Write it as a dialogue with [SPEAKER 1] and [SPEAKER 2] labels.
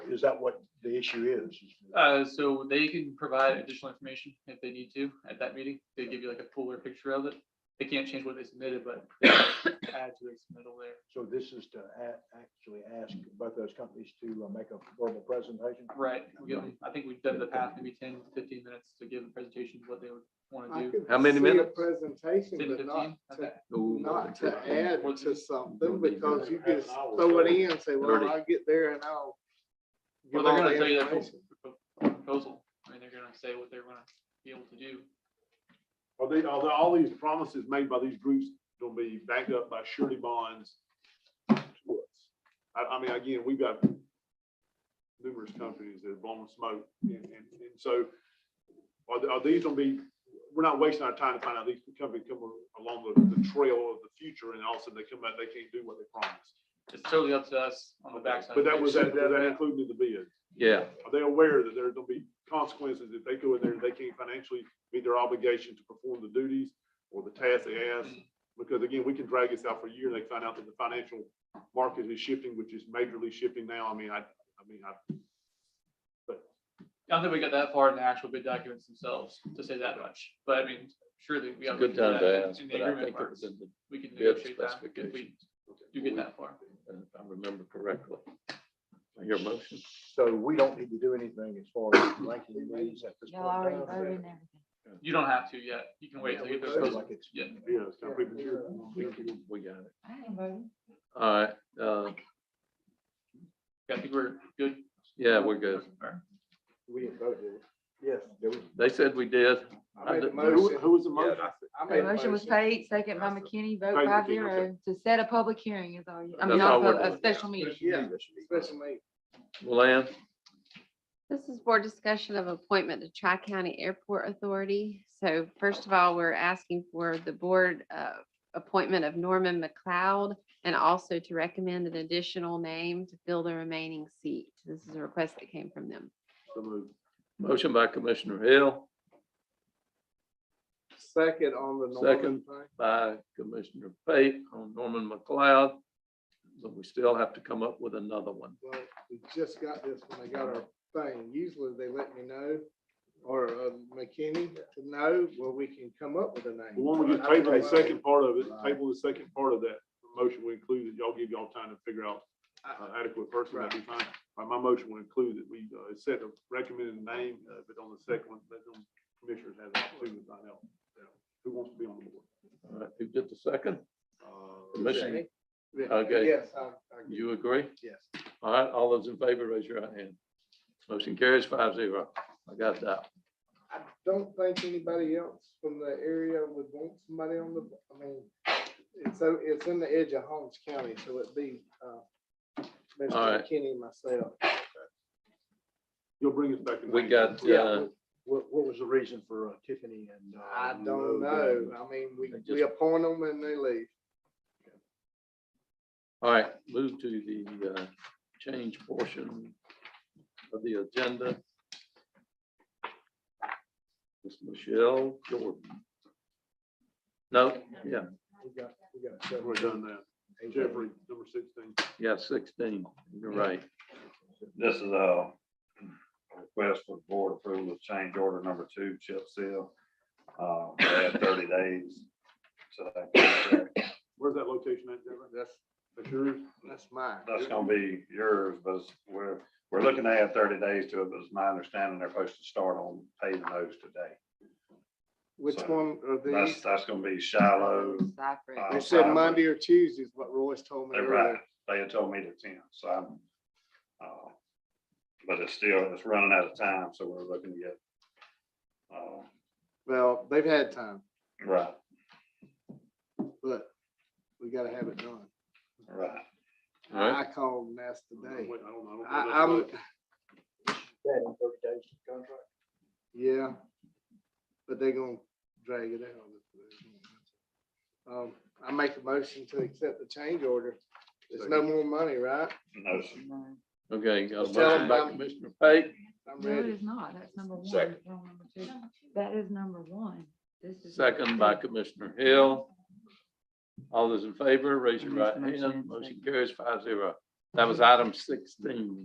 [SPEAKER 1] is that what the issue is?
[SPEAKER 2] Uh, so they can provide additional information if they need to at that meeting. They give you like a fuller picture of it. They can't change what they submitted, but they can add to their submittal there.
[SPEAKER 1] So this is to a- actually ask both those companies to uh, make a verbal presentation?
[SPEAKER 2] Right, we give them- I think we've done the past maybe 10, 15 minutes to give the presentation of what they would want
[SPEAKER 3] I
[SPEAKER 2] to do.
[SPEAKER 3] could
[SPEAKER 4] How many
[SPEAKER 3] see a
[SPEAKER 4] minutes?
[SPEAKER 3] Presentation,
[SPEAKER 2] 10,
[SPEAKER 3] but not
[SPEAKER 2] 15?
[SPEAKER 3] to,
[SPEAKER 2] Okay.
[SPEAKER 3] not to add
[SPEAKER 2] Well,
[SPEAKER 3] to something
[SPEAKER 4] don't need
[SPEAKER 3] because
[SPEAKER 4] to
[SPEAKER 3] you
[SPEAKER 5] have
[SPEAKER 3] can
[SPEAKER 5] an hour,
[SPEAKER 3] throw it
[SPEAKER 5] so-
[SPEAKER 3] in and say, well,
[SPEAKER 4] Thirty.
[SPEAKER 3] I'll get there and I'll.
[SPEAKER 2] Well,
[SPEAKER 3] give
[SPEAKER 2] they're
[SPEAKER 3] all
[SPEAKER 2] gonna
[SPEAKER 3] the
[SPEAKER 2] tell you their pro-
[SPEAKER 3] information."
[SPEAKER 2] pro- proposal. I mean, they're gonna say what they're gonna be able to do.
[SPEAKER 5] Are they, are the- all these promises made by these groups gonna be backed up by surety bonds? to us? I, I mean, again, we've got numerous companies that have blown smoke and, and, and so are, the- are these gonna be, we're not wasting our time to find out these companies come along the, the trail of the future and all of a sudden they come out, they can't do what they promised.
[SPEAKER 2] It's totally up to us on the backside.
[SPEAKER 5] But that was, that was that
[SPEAKER 2] Yeah.
[SPEAKER 5] included in the bid?
[SPEAKER 4] Yeah,
[SPEAKER 5] Are they aware that there's gonna be consequences if they go in there and they can't financially meet their obligation to perform the duties or the tasks they ask?
[SPEAKER 3] Mm-hmm.
[SPEAKER 5] Because again, we can drag this out for a year, and they find out that the financial market is shifting, which is majorly shifting now. I mean, I, I mean, I,
[SPEAKER 2] I don't think we got that far in the actual bid documents themselves to say that much, but I mean, surely we.
[SPEAKER 4] it's a
[SPEAKER 2] have
[SPEAKER 4] good time to ask,
[SPEAKER 2] In the
[SPEAKER 4] but I
[SPEAKER 2] agreement
[SPEAKER 4] think it
[SPEAKER 2] parts,
[SPEAKER 4] was in the
[SPEAKER 2] we can
[SPEAKER 4] bid
[SPEAKER 2] negotiate that if we
[SPEAKER 4] specifications.
[SPEAKER 2] do get that far.
[SPEAKER 4] if I remember correctly. Your motion,
[SPEAKER 1] So we don't need to do anything as far as ranking these at this
[SPEAKER 6] Y'all already
[SPEAKER 1] point.
[SPEAKER 6] voted and everything.
[SPEAKER 2] You don't have to yet. You can wait till you get the
[SPEAKER 1] Sounds
[SPEAKER 2] proposal.
[SPEAKER 1] like it's-
[SPEAKER 2] Yeah.
[SPEAKER 5] you know, it's kind of premature.
[SPEAKER 4] we, we got it.
[SPEAKER 6] I ain't voting.
[SPEAKER 4] All right, uh,
[SPEAKER 2] I think we're good.
[SPEAKER 4] yeah, we're good.
[SPEAKER 2] All right.
[SPEAKER 1] We didn't vote, did we? Yes.
[SPEAKER 4] They said we did.
[SPEAKER 3] I made a
[SPEAKER 5] Who,
[SPEAKER 3] motion.
[SPEAKER 5] who was the motion?
[SPEAKER 3] I made
[SPEAKER 6] The
[SPEAKER 3] a
[SPEAKER 6] motion was
[SPEAKER 3] motion.
[SPEAKER 6] paid, second by McKinney, vote
[SPEAKER 5] Thank you,
[SPEAKER 6] five
[SPEAKER 5] Tina.
[SPEAKER 6] zero, to set a public hearing is all, you- I mean,
[SPEAKER 4] That's all
[SPEAKER 6] not
[SPEAKER 4] we're
[SPEAKER 6] a pub-
[SPEAKER 4] doing.
[SPEAKER 6] a special meeting.
[SPEAKER 3] Yeah, especially.
[SPEAKER 4] Lance,
[SPEAKER 7] This is board discussion of appointment to Tri-County Airport Authority. So first of all, we're asking for the board uh, appointment of Norman McLeod and also to recommend an additional name to fill the remaining seat. This is a request that came from them.
[SPEAKER 5] So moved.
[SPEAKER 4] motion by Commissioner Hill,
[SPEAKER 3] Second on the Norman
[SPEAKER 4] Second.
[SPEAKER 3] thing.
[SPEAKER 4] by Commissioner Pate on Norman McLeod. But we still have to come up with another one.
[SPEAKER 3] Well, we just got this when they got our thing. Usually they let me know or uh, McKinney to know where we can come up with a
[SPEAKER 5] The
[SPEAKER 3] name.
[SPEAKER 5] one we just tabled, the second part of it, table the second part of that motion will include that y'all give y'all time to figure out uh, adequate person, that'd be fine. Uh, My motion will include that we uh, set a recommended name, uh, but on the second one, let them commissioners have an opportunity to find out you know, who wants to be on the board.
[SPEAKER 4] All right, who did the second?
[SPEAKER 5] Uh,
[SPEAKER 4] Commissioner,
[SPEAKER 3] Yeah,
[SPEAKER 4] Okay.
[SPEAKER 3] Yes, I, I, get it.
[SPEAKER 4] you agree?
[SPEAKER 3] yes.
[SPEAKER 4] All right, all those in favor, raise your right hand. Motion carries five zero. I got that.
[SPEAKER 3] I don't think anybody else from the area would want somebody on the, I mean, it's, so it's in the edge of Holmes County, so it'd be, uh,
[SPEAKER 4] All
[SPEAKER 3] Mr.
[SPEAKER 4] right.
[SPEAKER 3] McKinney and myself.
[SPEAKER 5] You'll bring us back. in
[SPEAKER 4] We
[SPEAKER 5] May.
[SPEAKER 4] got, uh,
[SPEAKER 1] What, what was the reason for uh, Tiffany and? uh,
[SPEAKER 3] I
[SPEAKER 1] Lou
[SPEAKER 3] don't know. I mean, we,
[SPEAKER 4] They just-
[SPEAKER 3] we appoint them and they leave.
[SPEAKER 4] all right, move to the uh, change portion of the agenda. Miss Michelle Jordan. No, yeah,
[SPEAKER 1] We got, we got several.
[SPEAKER 5] We're done now. Jeffrey, number sixteen.
[SPEAKER 4] yeah, sixteen, you're right.
[SPEAKER 8] This is a request for board approval of change order number two, chip seal. Uh, They have thirty days. to that contract.
[SPEAKER 5] Where's that location at, Jeffrey?
[SPEAKER 3] That's,
[SPEAKER 5] That's yours?
[SPEAKER 3] that's mine.
[SPEAKER 8] That's gonna be yours, but it's- we're, we're looking to add thirty days to it, but it's my understanding they're supposed to start on paving those today.
[SPEAKER 3] Which
[SPEAKER 8] so
[SPEAKER 3] one are these?
[SPEAKER 8] That's, that's gonna be Shiloh.
[SPEAKER 6] Cypress.
[SPEAKER 8] uh,
[SPEAKER 3] They said
[SPEAKER 8] Cypress.
[SPEAKER 3] Monday or Tuesday is what Royce told me
[SPEAKER 8] They're right.
[SPEAKER 3] earlier.
[SPEAKER 8] They had told me to ten, so I'm, uh, but it's still, it's running out of time, so we're looking to get, uh,
[SPEAKER 3] Well, they've had time,
[SPEAKER 8] right,
[SPEAKER 3] but we gotta have it done.
[SPEAKER 8] right.
[SPEAKER 4] All right.
[SPEAKER 3] I called and asked today.
[SPEAKER 5] Wait, I don't know. I
[SPEAKER 3] I,
[SPEAKER 5] don't know.
[SPEAKER 3] I'm, yeah. But they're gonna drag it out. Um, I make a motion to accept the change order. There's no more money, right?
[SPEAKER 8] No, sir.
[SPEAKER 4] Okay, got a
[SPEAKER 3] Tell
[SPEAKER 4] motion by
[SPEAKER 3] them-
[SPEAKER 4] Commissioner Pate,
[SPEAKER 3] I'm
[SPEAKER 6] No, it
[SPEAKER 3] ready.
[SPEAKER 6] is not. That's number one.
[SPEAKER 4] Second.
[SPEAKER 6] It's wrong number two. That is number one. This is.
[SPEAKER 4] second by Commissioner Hill. All those in favor, raise your right hand. Motion carries five zero. That was item sixteen.